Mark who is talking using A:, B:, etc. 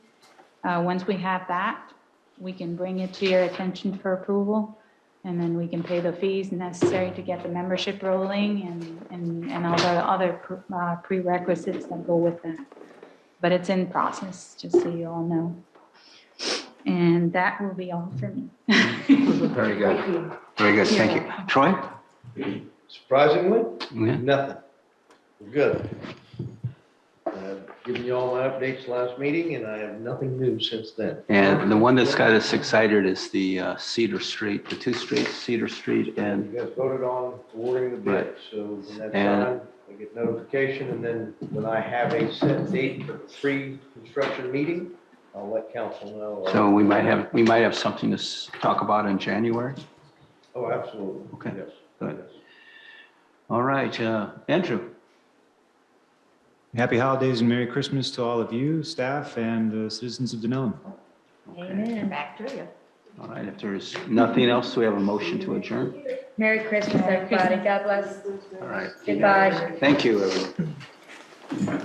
A: Uh, once we have that, we can bring it to your attention for approval. And then we can pay the fees necessary to get the membership rolling and, and, and all the other pr- uh, prerequisites that go with that. But it's in process, just so you all know. And that will be all for me.
B: Very good,
C: Thank you.
B: very good, thank you. Troy?
D: Surprisingly,
B: Yeah.
D: nothing. We're Good. I've given you all my updates last meeting and I have nothing new since then.
B: And the one that's got us excited is the uh, Cedar Street, the two streets, Cedar Street
D: You
B: and,
D: guys voted on awarding the bid,
B: Right.
D: so when that's
B: And-
D: done, I get notification and then when I have a set date for the pre-construction meeting, I'll let council know.
B: so we might have, we might have something to s- talk about in January.
D: Oh, absolutely.
B: Okay.
D: Yes.
B: Good. All right, uh, Andrew,
E: Happy holidays and Merry Christmas to all of you, staff, and uh, citizens of Denellen.
C: Amen. Back to you.
B: all right, if there's nothing else, we have a motion to adjourn.
C: Merry Christmas, everybody. God bless.
B: All right.
C: Goodbye.
B: Thank you, everyone.